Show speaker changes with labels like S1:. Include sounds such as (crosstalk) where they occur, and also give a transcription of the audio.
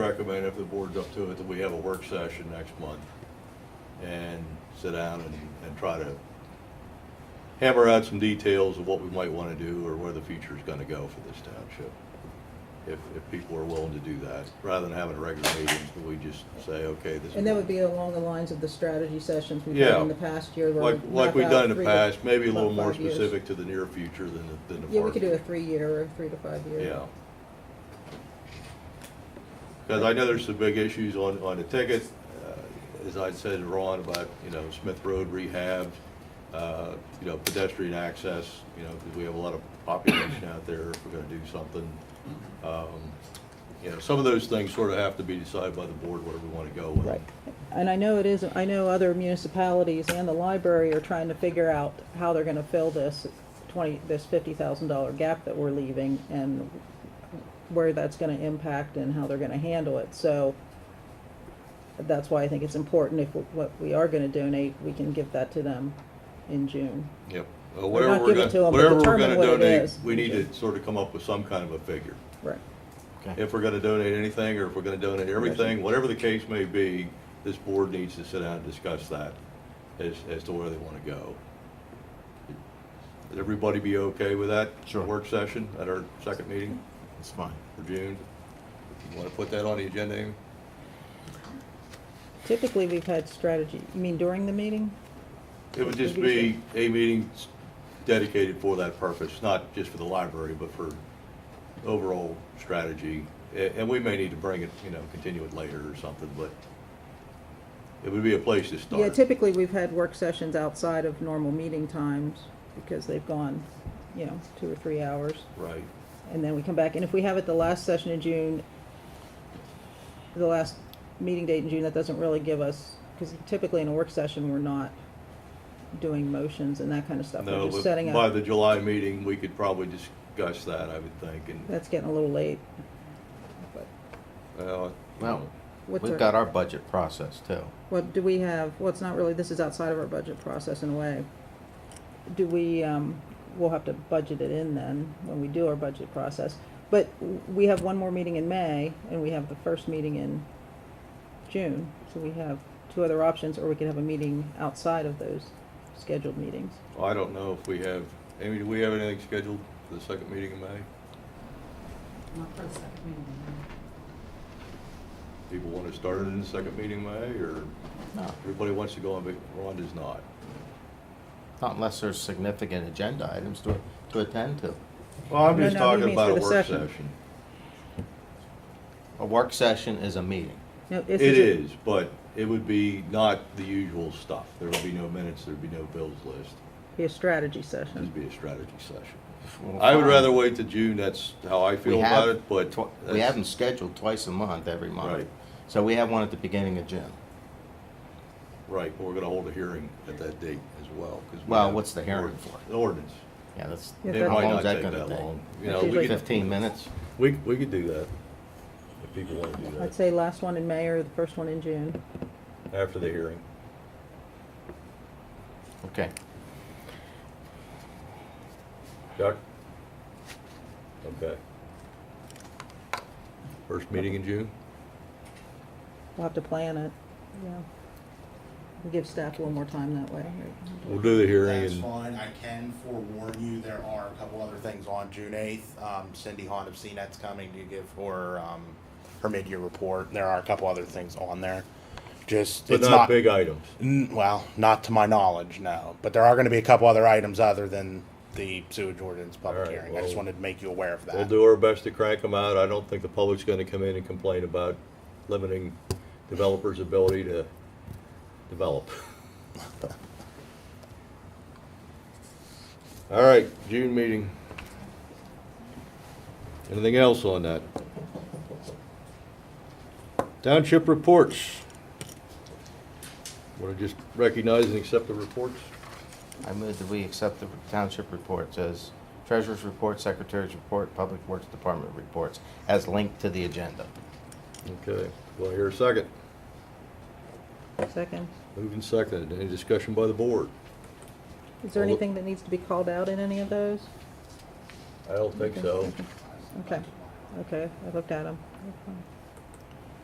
S1: recommend if the board's up to it, that we have a work session next month and sit down and, and try to hammer out some details of what we might want to do or where the future's going to go for this township. If, if people are willing to do that, rather than having a regular meeting, we just say, okay, this is.
S2: And that would be along the lines of the strategy sessions we've
S1: Yeah.
S2: done in the past year. where we
S1: Like, like
S2: map
S1: we've
S2: out
S1: done in the
S2: three to-
S1: past, maybe a
S2: about
S1: little more
S2: five years.
S1: specific to the near future than, the- than the far.
S2: Yeah, we could do a
S1: future.
S2: three-year or three to five-year.
S1: Yeah. Because I know there's some big issues on, on the ticket, uh, as I said, to Ron, about, you know, Smith Road rehab, uh, you know, pedestrian access, you know, because we have a lot of population out there, if we're gonna do something. Um, You know, some of those things sort of have to be decided by the board, where we want to go with. it.
S2: Right. And I know it is, I know other municipalities and the library are trying to figure out how they're gonna fill this twenty, this fifty thousand dollar gap that we're leaving and where that's gonna impact and how they're gonna handle it, so that's why I think it's important if what we are gonna donate, we can give that to them in June.
S1: Yep. Uh,
S2: Or
S1: Whatever
S2: not
S1: we're
S2: give it
S1: gonna-
S2: to 'em, but
S1: whatever we're
S2: determine
S1: gonna
S2: what it
S1: donate,
S2: is.
S1: We need to sort of come up with some kind of a figure.
S2: Right.
S3: Okay.
S1: If we're gonna donate anything, or if we're gonna donate everything, whatever the case may be, this board needs to sit down and discuss that as, as to where they wanna go. Would everybody be okay with that?
S3: Sure.
S1: Work session at our second meeting
S3: It's fine.
S1: for June? You wanna put that on the agenda, Amy?
S2: Typically, we've had strategy, you mean during the meeting?
S1: It would just be a meeting dedicated for that purpose, not just for the library, but for overall strategy. A- And we may need to bring it, you know, continue it later or something, but it would be a place to start.
S2: Yeah, typically, we've had work sessions outside of normal meeting times because they've gone, you know, two or three hours.
S1: Right,
S2: And then we come back, and if we have it the last session in June, the last meeting date in June, that doesn't really give us, because typically in a work session, we're not doing motions and that kind of stuff.
S1: no,
S2: We're just setting
S1: but by
S2: up.
S1: the July meeting, we could probably discuss that, I would think, and,
S2: That's getting a little late. But
S1: well.
S3: Well,
S2: What's
S3: we've
S2: our-
S3: got our budget process too.
S2: What do we have, well, it's not really, this is outside of our budget process in a way. Do we, um, we'll have to budget it in then, when we do our budget process. But w- we have one more meeting in May, and we have the first meeting in June, so we have two other options, or we could have a meeting outside of those scheduled meetings.
S1: I don't know if we have, Amy, do we have anything scheduled for the second meeting in May?
S4: Not for the second meeting.
S1: People want to start it in the second meeting in May, or
S3: No,
S1: everybody wants to go on, but Ron does not?
S3: not unless there's significant agenda items to, to attend to.
S1: Well, I'm
S2: No,
S1: just
S2: no, he
S1: talking
S2: means
S1: about a
S2: for the
S1: work
S2: session.
S1: session.
S3: A work session is a meeting.
S2: No,
S1: It
S2: this a-
S1: is, but it would be not the usual stuff. There would be no minutes, there'd be no bills list.
S2: Be a strategy
S1: It'd just
S2: session.
S1: be a strategy session. I would rather wait to June, that's how I
S3: We
S1: feel
S3: have
S1: about it, but.
S3: twi- We
S1: that's-
S3: have them scheduled twice a month, every month.
S1: Right.
S3: So we have one at the beginning of June.
S1: Right, but we're gonna hold a hearing at that date as well. 'cause we
S3: Well,
S1: have
S3: what's the hearing
S1: ordinance-
S3: for?
S1: the Ordinance.
S3: Yeah, that's,
S2: Yeah,
S1: It
S2: that-
S3: how
S1: might
S3: long
S1: not
S3: is that
S1: take
S3: gonna
S1: that long.
S3: take?
S1: You know,
S2: That's
S1: we
S2: usually
S1: could,
S3: Fifteen minutes?
S1: we, we could do that, if people wanna do
S2: I'd
S1: that,
S2: say last one in May or the first one in June.
S1: after the hearing.
S3: Okay.
S1: Chuck? Okay. First meeting in June?
S2: We'll have to plan it, yeah. Give staff a little more time that way.
S1: We'll do the hearing
S5: That's
S1: and.
S5: fine, I can forewarn you, there are a couple other things on June eighth. Um, Cindy Hahn of CNET's coming to give her, um, her mid-year report, there are a couple other things on there. Just,
S1: But
S5: it's
S1: not
S5: not,
S1: big items.
S5: n- well, not to my knowledge, no, but there are gonna be a couple other items other than the sewage ordinance public
S1: All right,
S5: hearing, I just
S1: well,
S5: wanted to make you aware of that.
S1: We'll do our best to crank them out. I don't think the public's gonna come in and complain about limiting developers' ability to develop. (laughs) All right, June meeting. Anything else on that? Township reports. Want to just recognize and accept the reports?
S3: I move that we accept the township reports as treasurer's report, secretary's report, public works department reports as linked to the agenda.
S1: Okay, well, here a second.
S2: Second.
S1: Moving second. Any discussion by the board?
S2: Is there
S1: Well,
S2: anything that needs to be called out in any of those?
S1: I don't think so.
S2: Okay, okay, I looked at them.